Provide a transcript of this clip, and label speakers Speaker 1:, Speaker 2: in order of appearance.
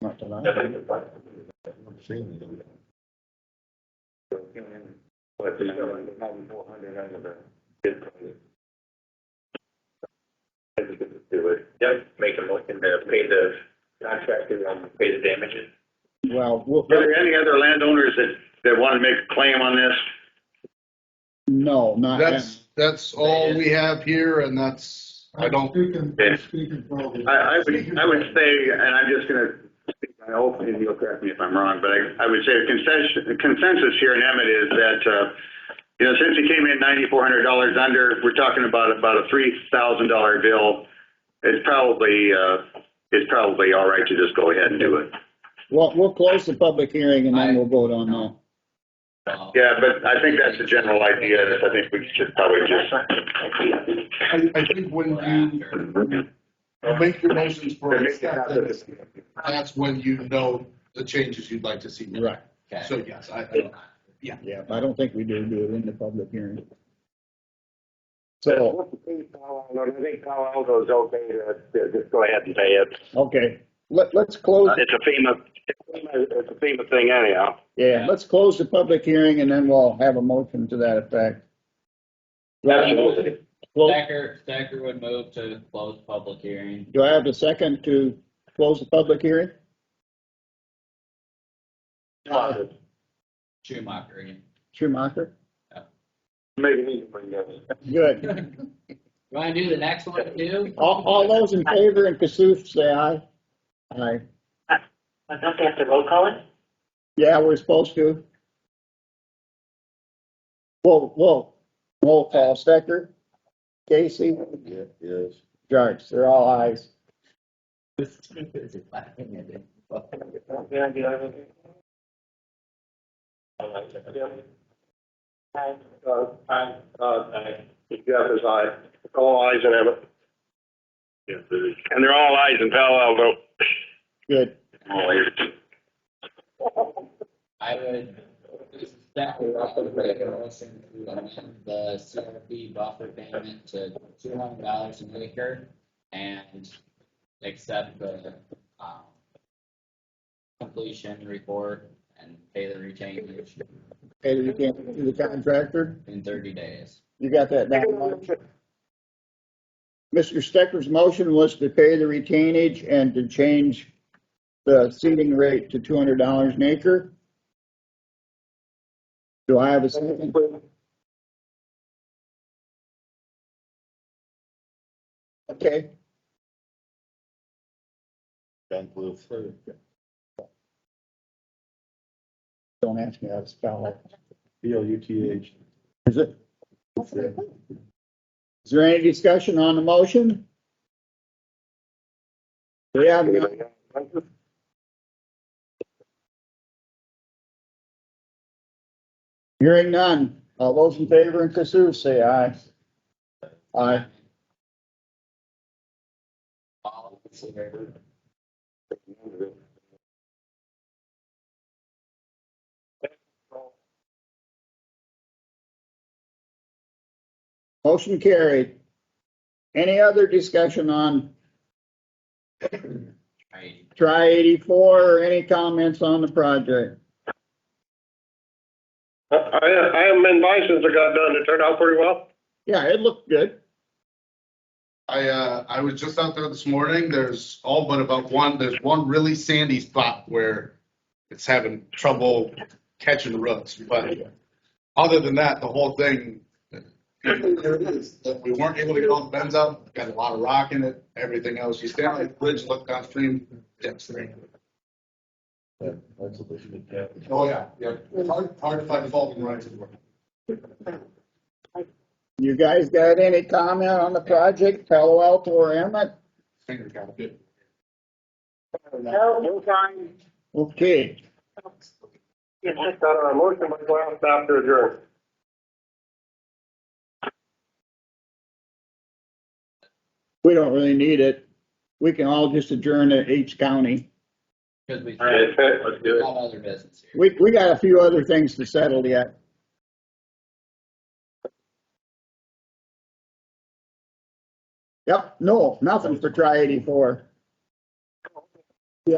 Speaker 1: Not tonight.
Speaker 2: But there's still like probably four hundred under the bid price. I think we could do it. Yep, make a motion to pay the contractor, um, pay the damages.
Speaker 1: Well, we'll,
Speaker 3: Are there any other landowners that, that want to make a claim on this?
Speaker 1: no, not.
Speaker 4: That's, that's all we have here and that's, I don't,
Speaker 5: Speaking,
Speaker 3: Yeah.
Speaker 5: speaking for all the.
Speaker 3: I, I would, I would say, and I'm just gonna speak my own opinion, you'll correct me if I'm wrong, but I, I would say the consensus, the consensus here in Emmett is that, uh, you know, since he came in ninety-four hundred dollars under, we're talking about, about a three thousand dollar bill. It's probably, uh, it's probably all right to just go ahead and do it.
Speaker 1: Well, we'll close the public hearing and then we'll vote on that.
Speaker 3: Yeah, but I think that's the general idea, is I think we should probably just.
Speaker 4: I, I think when you make your motions for acceptance, that's when you know the changes you'd like to see. made.
Speaker 1: Right.
Speaker 4: So yes, I, I,
Speaker 1: Yeah, I don't think we do do it in the public hearing. So,
Speaker 2: I think Palo Alto's okay to, to just go ahead and pay it.
Speaker 1: okay, let, let's close,
Speaker 3: It's a FEMA, it's a FEMA thing anyhow.
Speaker 1: yeah, let's close the public hearing and then we'll have a motion to that effect.
Speaker 2: Absolutely.
Speaker 1: Close-
Speaker 6: Stacker, Stacker would move to close public hearing.
Speaker 1: Do I have a second to close the public hearing?
Speaker 6: Schumacher again.
Speaker 1: Schumacher?
Speaker 2: Make it easy for you guys.
Speaker 1: Good.
Speaker 6: You wanna do the next one too?
Speaker 1: All, all those in favor and Kasuf, say aye. Aye.
Speaker 7: Well, Don't they have to roll call it?
Speaker 1: Yeah, we're supposed to. Whoa, whoa, roll call, Stecker, Casey,
Speaker 5: Yes.
Speaker 1: Jarks, they're all ayes.
Speaker 6: This is laughing at it.
Speaker 2: Yeah, do you have anything? I like that.
Speaker 7: Aye.
Speaker 2: Uh, aye, uh, aye. Jeff is aye. All ayes that have it.
Speaker 3: And they're all eyes in Palo Alto.
Speaker 1: Good.
Speaker 3: All eyes.
Speaker 6: I would, that would also make a motion to amend the CRP buffer payment to two hundred dollars an acre and accept the, um, completion report and pay the retainage
Speaker 1: Okay, you can't do the contractor,
Speaker 6: in thirty days.
Speaker 1: you got that down, Mark? Mr. Stecker's motion was to pay the retainage and to change the seeding rate to two hundred dollars an acre. Do I have a second? Okay,
Speaker 5: Ben Blue.
Speaker 1: don't ask me how to spell it.
Speaker 5: B L U T H.
Speaker 1: Is it, is there any discussion on the motion? We have none. Hearing none. All those in favor and Kasuf, say aye. Aye.
Speaker 6: All in favor?
Speaker 1: Motion carried. Any other discussion on
Speaker 6: Right.
Speaker 1: Try 84 or any comments on the project?
Speaker 3: Uh, I, I haven't been by since it got done. It turned out pretty well.
Speaker 1: Yeah, it looked good.
Speaker 4: I, uh, I was just out there this morning. There's all but about one, there's one really sandy spot where it's having trouble catching roots, but other than that, the whole thing, we weren't able to get all the bends out, got a lot of rock in it, everything else. You stand on the bridge, look downstream, depth's there. Oh, yeah, yeah. It's Hard, hard to find fault in rights of way.
Speaker 1: You guys got any comment on the project, Palo Alto or Emmett?
Speaker 4: Finger got bit.
Speaker 7: No, no time.
Speaker 1: Okay,
Speaker 7: Yes, sir.
Speaker 3: Not
Speaker 2: uh,
Speaker 3: on a motion, but go out and stop to adjourn.
Speaker 1: we don't really need it. We can all just adjourn at each county.
Speaker 6: Cause we
Speaker 3: All right, let's do it.
Speaker 6: have other business here.
Speaker 1: We, we got a few other things to settle yet. Yep, no, nothing for try 84.